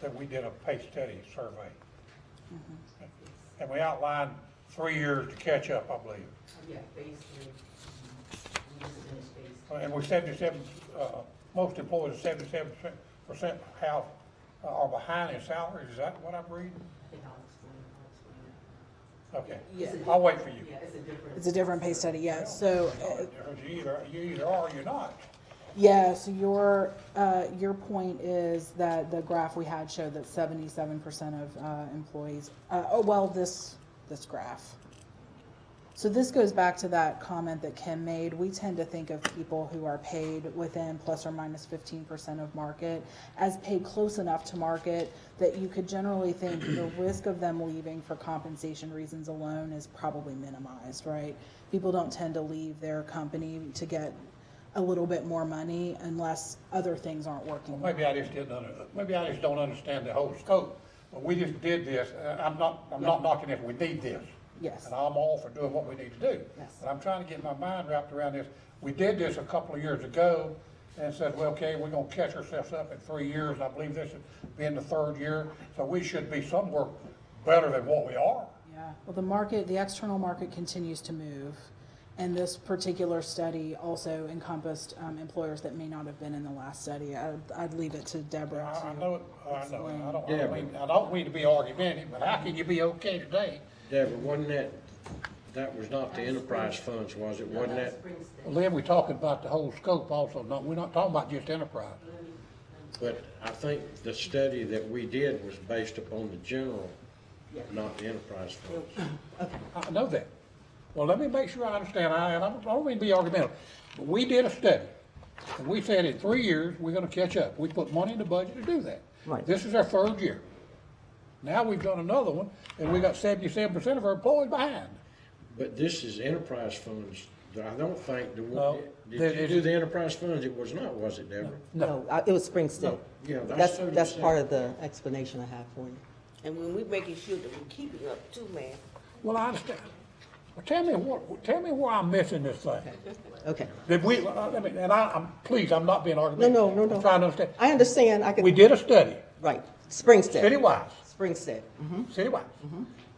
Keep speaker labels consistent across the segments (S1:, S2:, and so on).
S1: that we did a pay study survey. And we outlined three years to catch up, I believe.
S2: Yeah, phase three. We just finished phase three.
S1: And we're seventy-seven, uh, most employees are seventy-seven percent have, uh, are behind in salaries, is that what I'm reading?
S2: I think I'll explain, I'll explain it.
S1: Okay,
S2: It's a
S1: I'll wait for
S2: different-
S1: you.
S2: Yeah, it's a different.
S3: It's a different pay study, yeah. So, uh,
S1: You either, you either are or you're not.
S3: yeah, so your, uh, your point is that the graph we had showed that seventy-seven percent of, uh, employees, uh, oh, well, this, this graph. So this goes back to that comment that Kim made. We tend to think of people who are paid within plus or minus fifteen percent of market as paid close enough to market that you could generally think the risk of them leaving for compensation reasons alone is probably minimized, right? People don't tend to leave their company to get a little bit more money unless other things aren't working.
S1: Maybe I just didn't, under- maybe I just don't understand the whole scope, but we just did this, and I'm not, I'm not knocking if we need this.
S3: Yes.
S1: And I'm all for doing what we need to do.
S3: Yes.
S1: But I'm trying to get my mind wrapped around this. We did this a couple of years ago and said, well, okay, we're gonna catch ourselves up in three years, and I believe this is being the third year, so we should be somewhere better than what we are.
S3: Yeah, well, the market, the external market continues to move. And this particular study also encompassed um, employers that may not have been in the last study. I- I'd leave it to
S1: I,
S3: Deborah.
S1: I
S3: to-
S1: know, it- I know, it. I don't, I
S4: Yeah,
S1: don't
S4: but-
S1: mean, I don't mean to be argumentative, but how can you be okay today?
S4: Yeah, but wasn't that, that was not the enterprise funds, was it? Wasn't that,
S2: Spring state.
S1: Well, then we're talking about the whole scope also, not, we're not talking about just enterprise.
S4: but I think the study that we did was based upon the general, not the enterprise funds.
S1: I know that. Well, let me make sure I understand, I, and I don't- I don't mean to be argumentative, but we did a study, and we said in three years, we're gonna catch up. We put money in the budget to do that.
S5: Right.
S1: This is our third year. Now we've done another one, and we got seventy-seven percent of our employees behind.
S4: But this is enterprise funds, I don't think, the
S1: No,
S4: one-
S1: that
S4: did you
S1: is-
S4: do the enterprise funds? It was not, was it, Deborah?
S5: No, I- it was spring still.
S4: yeah, that's
S5: That's,
S4: totally
S5: that's part
S4: separate.
S5: of the explanation I have for you.
S6: And when we making sure that we keep it up too, man,
S1: Well, I understand. Well, tell me what, tell me where I'm missing this thing.
S5: Okay.
S1: That we, uh, let me, and I, I'm, please, I'm not being
S5: No,
S1: argumentative.
S5: no, no, no.
S1: I'm trying to understand.
S5: I understand, I
S1: We
S5: could,
S1: did a study,
S5: right, Springstead.
S1: city-wise.
S5: Springstead, mhm.
S1: citywide.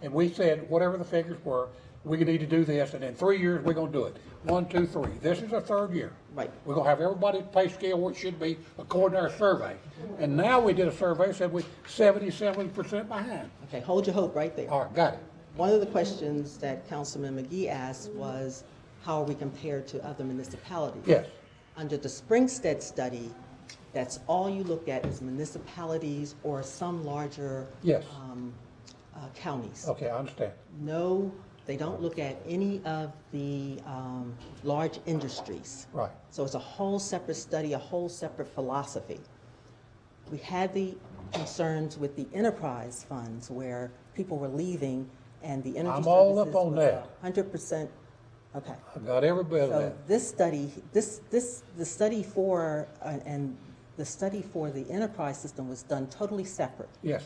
S1: And we said, whatever the figures were, we need to do this, and in three years, we're gonna do it. One, two, three. This is our third year.
S5: Right.
S1: We're gonna have everybody's pay scale where it should be according to our survey. And now we did a survey, said we seventy-seven percent behind.
S5: okay, hold your hope right there.
S1: All right, got it.
S5: One of the questions that Councilman McGee asked was, how are we compared to other municipalities?
S1: Yes.
S5: Under the Springstead study, that's all you look at is municipalities or some larger
S1: Yes. Oh.
S5: um, uh, counties.
S1: Okay, I understand.
S5: No, they don't look at any of the um, large industries.
S1: Right.
S5: So it's a whole separate study, a whole separate philosophy. We had the concerns with the enterprise funds where people were leaving and the energy
S1: I'm all up
S5: services
S1: on
S5: was
S1: that.
S5: Hundred percent, okay.
S1: I got every bit of
S5: So
S1: that.
S5: this study, this, this, the study for, uh, and the study for the enterprise system was done totally separate.
S1: Yes.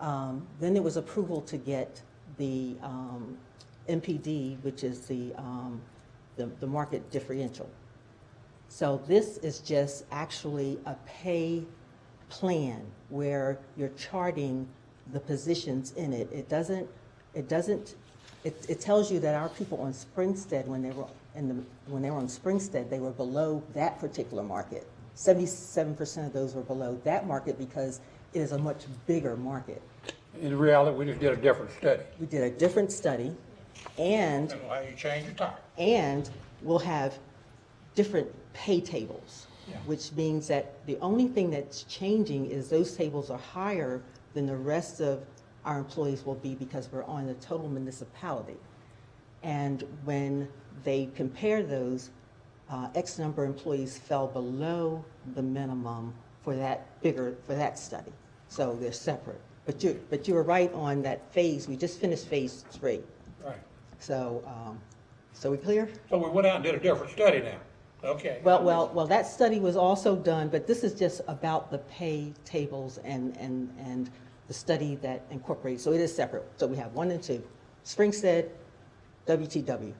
S5: Um, Then there was approval to get the um, MPD, which is the, um, the the market differential. So this is just actually a pay plan where you're charting the positions in it. It doesn't, it doesn't, it, it tells you that our people on Springstead, when they were in the, when they were on Springstead, they were below that particular market. Seventy-seven percent of those were below that market because it is a much bigger market.
S1: In reality, we just did a different study.
S5: We did a different study and
S1: That's how you change the tire.
S5: and we'll have different pay tables,
S1: Yeah.
S5: which means that the only thing that's changing is those tables are higher than the rest of our employees will be because we're on the total municipality. And when they compare those, uh, X number of employees fell below the minimum for that bigger, for that study. So they're separate. But you, but you were right on that phase. We just finished phase three.
S1: Right.
S5: So, um, so we clear?
S1: So we went out and did a different study now. Okay.
S5: Well, well, well, that study was also done, but this is just about the pay tables and, and, and the study that incorporates, so it is separate. So we have one and two. Springstead, WTW.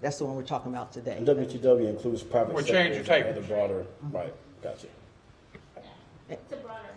S5: That's the one we're talking about today.
S7: WTW includes private
S1: We're
S7: sector
S1: changing
S7: and the
S1: tables.
S7: broader, right, gotcha.
S2: It's a broader